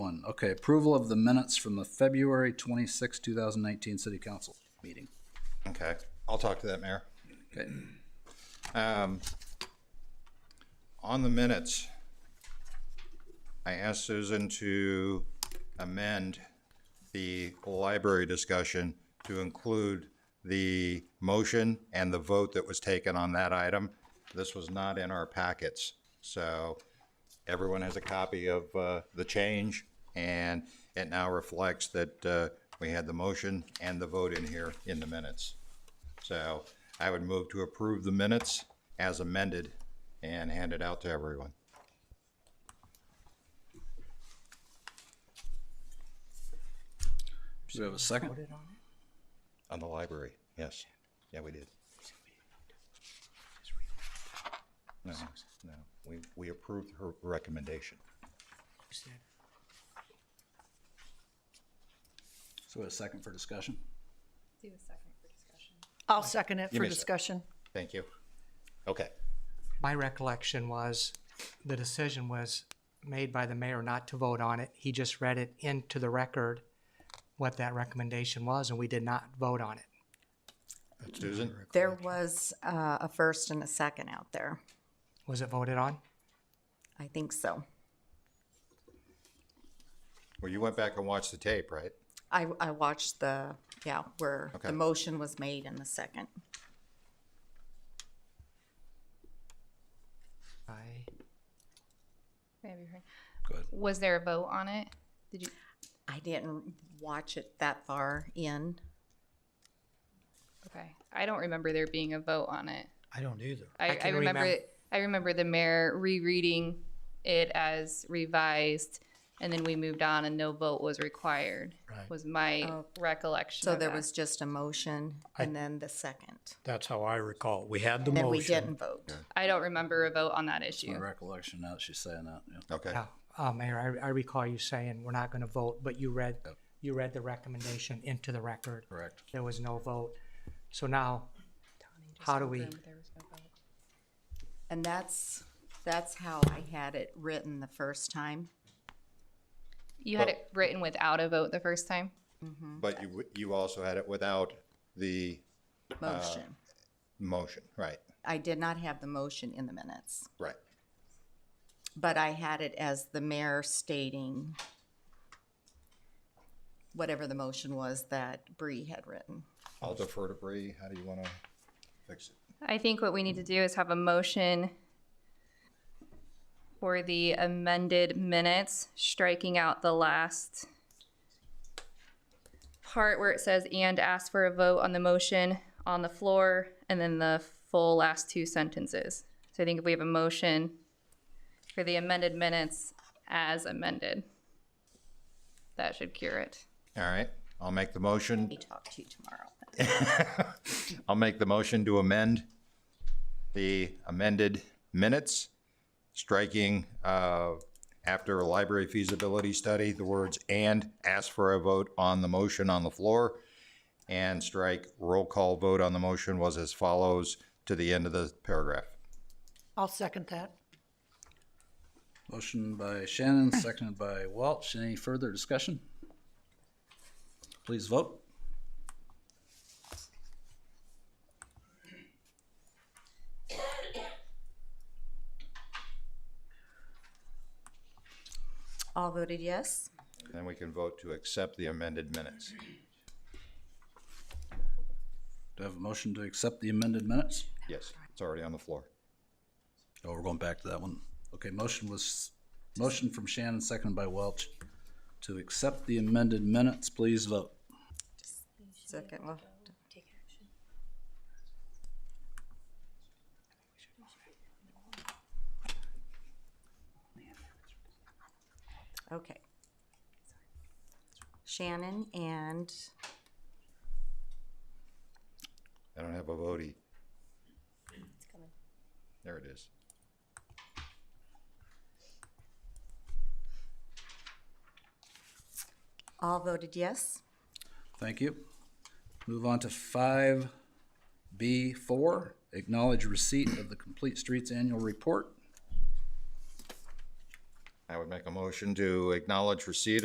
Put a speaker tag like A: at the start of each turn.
A: seven, okay, approval of the minutes from the February twenty-sixth, two thousand nineteen city council meeting.
B: Okay, I'll talk to that, Mayor.
A: Okay,
B: Um, On the minutes, I asked Susan to amend the library discussion to include the motion and the vote that was taken on that item. This was not in our packets, so everyone has a copy of uh, the change, and it now reflects that uh, we had the motion and the vote in here in the minutes. So I would move to approve the minutes as amended and hand it out to everyone.
A: do we have a second?
B: On the library, yes. Yeah, we did. No, no, we, we approved her recommendation.
A: So a second for discussion?
C: Do a second for discussion.
D: I'll second it
B: Give
D: for
B: me a sec.
D: discussion.
B: Thank you. Okay,
E: My recollection was the decision was made by the mayor not to vote on it. He just read it into the record what that recommendation was, and we did not vote on it.
B: Susan?
F: There was uh, a first and a second out there.
E: Was it voted on?
F: I think so.
B: Well, you went back and watched the tape, right?
F: I, I watched the, yeah, where
B: Okay.
F: the motion was made in the second.
E: I,
C: Maybe you're right.
A: Go ahead.
C: Was there a vote on it? Did you?
F: I didn't watch it that far in.
C: Okay, I don't remember there being a vote on it.
G: I don't either.
C: I,
E: I
C: I
E: can
C: remember.
E: remem-
C: I remember the mayor rereading it as revised, and then we moved on, and no vote was required.
G: Right.
C: Was my
F: Oh.
C: recollection.
F: So
C: of
F: there
C: that.
F: was just a motion and then the second.
G: That's how I recall. We had the
F: And then we
G: motion.
F: didn't vote.
C: I don't remember a vote on that
A: My
C: issue.
A: recollection now that she's saying that, yeah.
B: Okay,
E: yeah, uh, Mayor, I, I recall you saying we're not gonna vote, but you read, you read the recommendation into the record.
A: correct.
E: There was no vote. So now, how do we,
F: And that's, that's how I had it written the first time.
C: You had it written without a vote the first time.
B: but you, w- you also had it without the
G: Uh.
F: Motion.
B: motion, right,
F: I did not have the motion in the minutes,
B: right.
F: but I had it as the mayor stating whatever the motion was that Bree had written.
B: I'll defer to Bree. How do you want to fix it?
C: I think what we need to do is have a motion for the amended minutes, striking out the last part where it says and ask for a vote on the motion on the floor, and then the full last two sentences. So I think if we have a motion for the amended minutes as amended, that should cure it.
B: All right, I'll make the motion
F: We talk to you tomorrow.
B: I'll make the motion to amend the amended minutes, striking, uh, after a library feasibility study, the words "and" ask for a vote on the motion on the floor, and strike roll call vote on the motion was as follows to the end of the paragraph.
D: I'll second that.
A: Motion by Shannon, seconded by Welch. Any further discussion? Please vote.
F: All voted yes?
B: Then we can vote to accept the amended minutes.
A: Do I have a motion to accept the amended minutes?
B: Yes, it's already on the floor.
A: Oh, we're going back to that one. Okay, motion was, motion from Shannon, seconded by Welch. To accept the amended minutes, please vote.
F: Second, well, okay. Shannon and
B: I don't have a votey. There it is.
F: all voted yes?
A: Thank you. Move on to five B four, acknowledge receipt of the Complete Streets Annual Report.
B: I would make a motion to acknowledge receipt